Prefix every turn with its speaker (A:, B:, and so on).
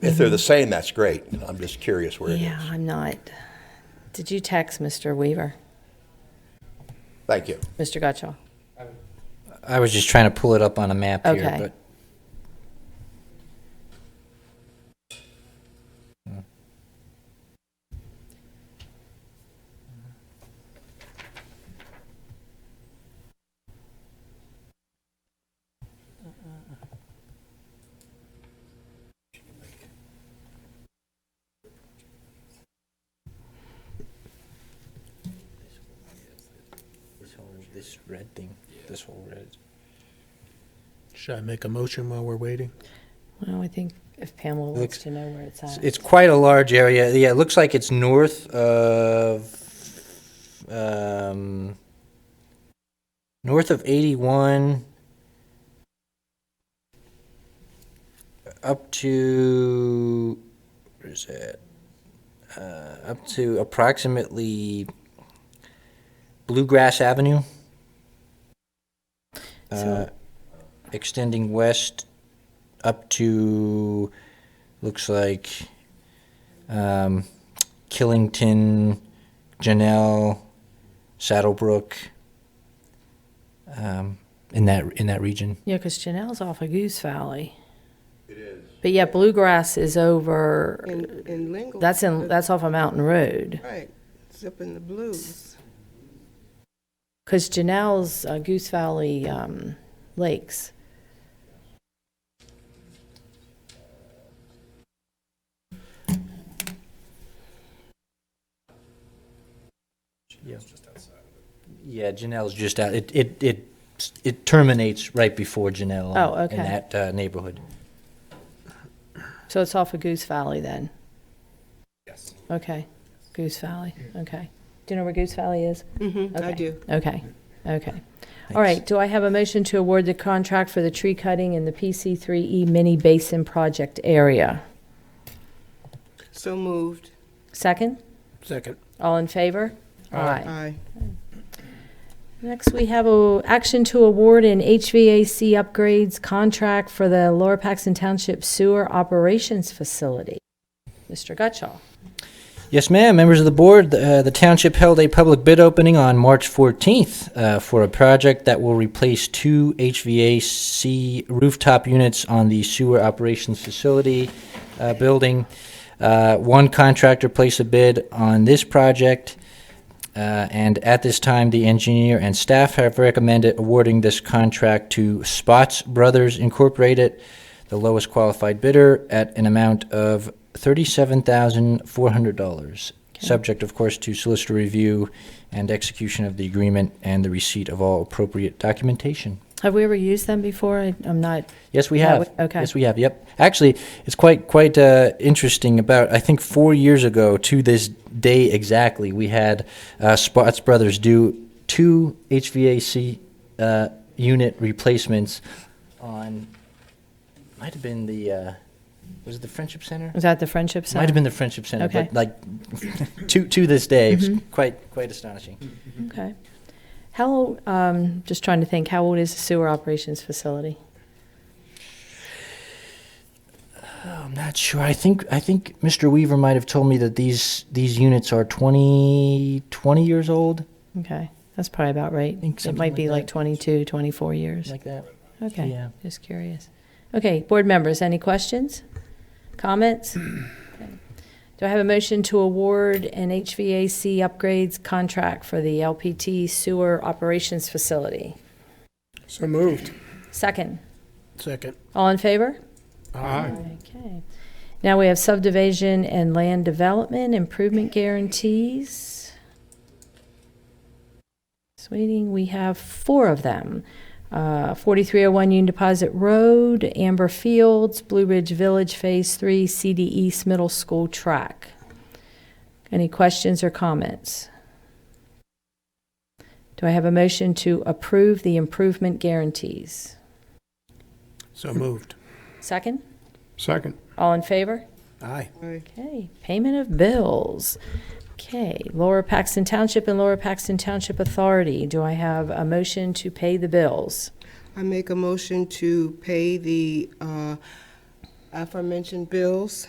A: If they're the same, that's great. I'm just curious where it
B: Yeah,
A: is.
B: I'm not. Did you text Mr. Weaver,
A: Thank you.
B: Mr. Gotchall?
C: I was just trying to pull it up on a map here,
B: Okay.
C: but this whole this red thing, this whole red.
D: Should I make a motion while we're waiting?
B: Well, I think if Pamela wants
C: Looks-
B: to know where it's
C: It's-
B: at.
C: It's quite a large area. Yeah, it looks like it's north of um, north of 81 up to where is that? Uh, up to approximately Bluegrass Avenue. Uh,
B: So-
C: extending west up to looks like um, Killington, Janelle, Saddlebrook, um, in that in that region.
B: Yeah, because Janelle's off of Goose Valley.
A: It is.
B: But yeah, Bluegrass is over,
E: In, in Lingle.
B: that's in, that's off of Mountain Road.
E: Right, zipping the blues.
B: Because Janelle's uh, Goose Valley um, Lakes.
C: Yeah, yeah. Janelle's just out. It it it it terminates right before Janelle.
B: Oh,
C: in-
B: okay.
C: In that uh, neighborhood.
B: So it's off of Goose Valley then? Yes. Okay, Goose Valley, okay. Do you know where Goose Valley is?
E: Mm-hmm, I
B: Okay.
E: do.
B: Okay, okay. All right, do I have a motion to award the contract for the tree cutting in the PC3E E Mini Basin Project area?
E: So moved.
B: Second?
D: Second.
B: All in favor? Aye.
E: Aye.
B: Next, we have a action to award an HVAC upgrades contract for the Lower Paxton Township Sewer Operations Facility. Mr. Gutschall.
C: Yes, ma'am. Members of the board, uh, the township held a public bid opening on March 14th uh, for a project that will replace two HVAC rooftop units on the sewer operations facility uh, building. Uh, one contractor placed a bid on this project, uh, and at this time, the engineer and staff have recommended awarding this contract to Spots Brothers Incorporated, the lowest qualified bidder, at an amount of $37,400, subject, of course, to solicitor review and execution of the agreement and the receipt of all appropriate documentation.
B: Have we ever used them before? I- I'm not,
C: Yes, we
B: Yeah,
C: have.
B: we- okay.
C: Yes, we have. Yep. Actually, it's quite quite uh, interesting. About I think four years ago to this day exactly, we had uh, Spots Brothers do two HVAC uh, unit replacements on. Might have been the uh, was it the Friendship Center?
B: is that the Friendship Center?
C: Might have been the Friendship Center,
B: Okay. Mm-hmm.
C: but like to to this day, it's quite quite astonishing.
B: Okay. How, um, just trying to think, how old is the sewer operations facility?
C: I'm not sure. I think I think Mr. Weaver might have told me that these these units are 20, 20 years old,
B: Okay, that's probably about right.
C: think
B: It
C: something
B: might be
C: like
B: like
C: that.
B: 22, 24 years.
C: like that.
B: Okay,
C: yeah.
B: just curious. Okay, board members, any questions? Comments? Okay. Do I have a motion to award an HVAC upgrades contract for the LPT sewer operations facility?
D: So moved.
B: Second.
D: Second.
B: All in favor?
D: Aye.
B: Okay. Now we have subdivision and land development improvement guarantees. Sweeting, we have four of them. Uh, 4301 Union Deposit Road, Amber Fields, Blue Ridge Village Phase 3, CD East Middle School Track. Any questions or comments? Do I have a motion to approve the improvement guarantees?
D: So moved.
B: Second?
D: Second.
B: All in favor?
D: Aye.
E: Aye.
B: Okay, payment of bills. Okay, Lower Paxton Township and Lower Paxton Township Authority, do I have a motion to pay the bills?
E: I make a motion to pay the uh, aforementioned bills.